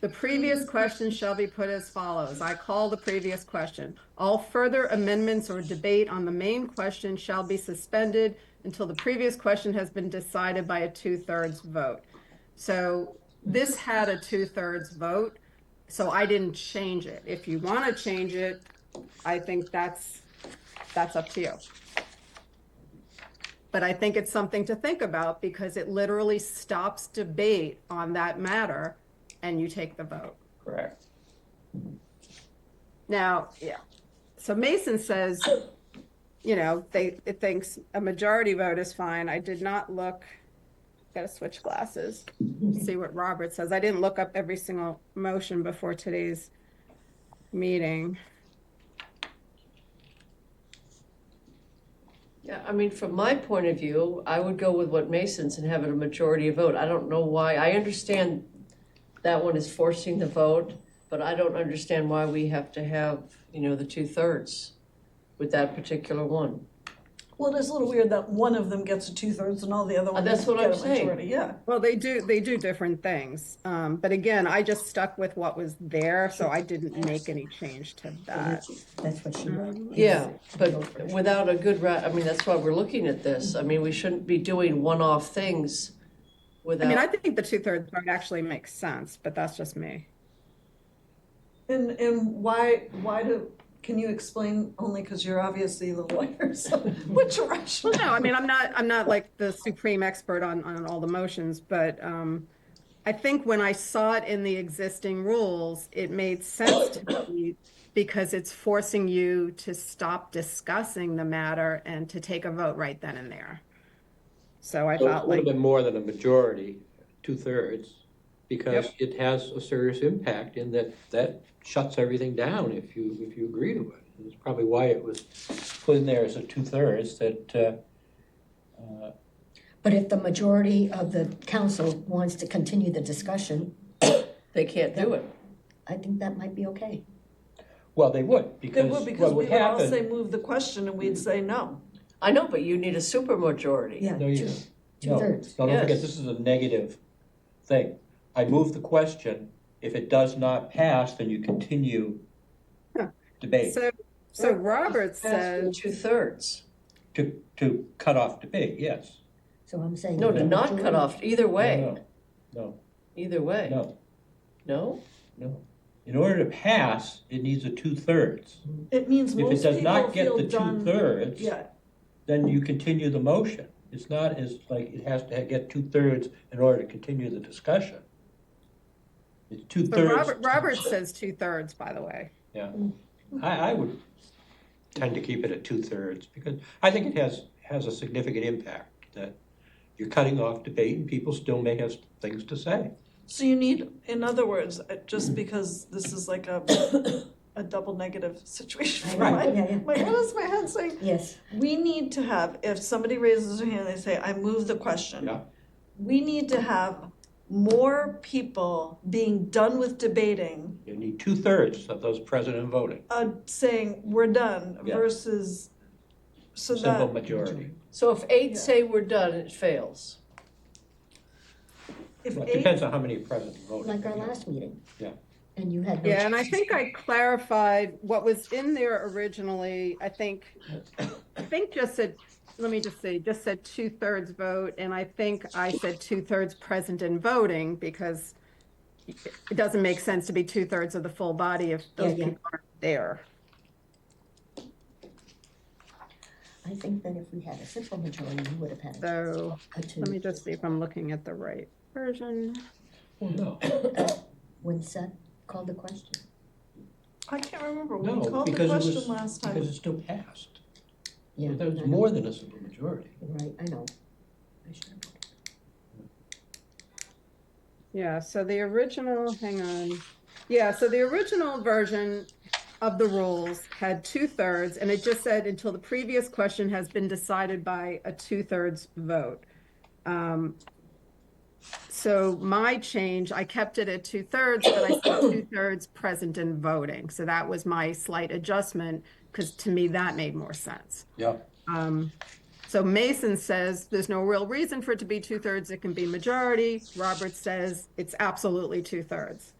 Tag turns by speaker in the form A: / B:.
A: The previous question shall be put as follows. I call the previous question. All further amendments or debate on the main question shall be suspended until the previous question has been decided by a two-thirds vote. So this had a two-thirds vote, so I didn't change it. If you want to change it, I think that's, that's up to you. But I think it's something to think about because it literally stops debate on that matter and you take the vote.
B: Correct.
A: Now, yeah. So Mason says, you know, they, it thinks a majority vote is fine. I did not look, gotta switch glasses, see what Robert says. I didn't look up every single motion before today's meeting.
C: Yeah, I mean, from my point of view, I would go with what Mason's and have it a majority vote. I don't know why, I understand that one is forcing the vote, but I don't understand why we have to have, you know, the two-thirds with that particular one.
D: Well, it is a little weird that one of them gets a two-thirds and all the other ones
C: Uh, that's what
D: get
C: I'm
D: a
C: saying.
D: majority, yeah.
A: Well, they do, they do different things. Um, but again, I just stuck with what was there, so I didn't make any change to that.
E: That's what she wrote.
C: Yeah, but without a good ra, I mean, that's why we're looking at this. I mean, we shouldn't be doing one-off things
A: I mean, I
C: without,
A: think the two-thirds vote actually makes sense, but that's just me.
D: And, and why, why do, can you explain, only because you're obviously the lawyer, so which direction?
A: No, I mean, I'm not, I'm not like the supreme expert on, on all the motions, but, um, I think when I saw it in the existing rules, it made sense to me because it's forcing you to stop discussing the matter and to take a vote right then and there. So I
F: So it's
A: felt
F: a
A: like,
F: little bit more than a majority, two-thirds, because it has a serious impact in that that shuts everything down if you, if you agree to it. And It's probably why it was put in there as a two-thirds that, uh,
E: But if the majority of the council wants to continue the discussion,
C: they can't do it.
E: I think that might be okay.
F: well, they would,
D: They
F: because
D: would,
F: what
D: because we
F: would
D: would all say
F: happen.
D: move the question and we'd say no.
C: I know, but you need a supermajority.
E: Yeah,
F: No, you
E: two,
F: don't. No,
E: two-thirds.
F: no, don't forget,
C: Yes.
F: this is a negative thing. I move the question, if it does not pass, then you continue debate,
A: so, so Robert says,
C: Two-thirds.
F: to, to cut off debate, yes.
E: So I'm saying.
C: No, to
E: the
C: not cut
E: majority-
C: off, either way,
F: No, No,
C: either
F: no,
C: way.
F: no.
C: No?
F: No. In order to pass, it needs a two-thirds.
D: It means
F: If it
D: most
F: does
D: people
F: not get
D: feel
F: the
D: done,
F: two-thirds,
D: yeah,
F: then you continue the motion. It's not as, like, it has to get two-thirds in order to continue the discussion. It's
A: but
F: two-thirds.
A: Robert, Robert says two-thirds, by the way.
F: Yeah. I, I would tend to keep it at two-thirds, because I think it has, has a significant impact, that you're cutting off debate, and people still may have things to say.
D: So you need, in other words, uh, just because this is like a, a double negative situation. for
E: Right,
D: my-
E: yeah, yeah.
D: My, what is my head saying?
E: Yes,
D: We need to have, if somebody raises their hand, they say, I move the question.
F: Yeah.
D: We need to have more people being done with debating,
F: You need two-thirds of those present and voting,
D: uh, saying, we're done
F: Yeah.
D: versus, so
F: simple
D: that
F: majority.
C: So if eight say we're done, it fails.
D: if
F: Well, it
D: eight,
F: depends on how many present voted.
E: like our last meeting.
F: Yeah.
E: And you had no.
A: Yeah, and I think I clarified what was in there originally, I think, I think just said, let me just see, just said two-thirds vote, and I think I said two-thirds present and voting, because it doesn't make sense to be two-thirds of the full body if those
E: Yeah, yeah.
A: people aren't there.
E: I think that if we had a simple majority, you would have had a
A: So,
E: two.
A: let me just see if I'm looking at the right version.
F: Well, no,
E: When Seth called the question.
D: I can't remember, we
F: no,
D: called the
F: because it was,
D: question last time.
F: because it still passed.
E: Yeah.
F: There was
E: I know.
F: more than a simple majority.
E: Right, I know. I should have.
A: Yeah, so the original, hang on. Yeah, so the original version of the rules had two thirds, and it just said until the previous question has been decided by a two thirds vote. Um, so my change, I kept it at two thirds, but I said two thirds present and voting. So that was my slight adjustment, because to me, that made more sense.
F: Yeah.
A: Um, So Mason says there's no real reason for it to be two thirds. It can be majority. Roberts says it's absolutely two thirds.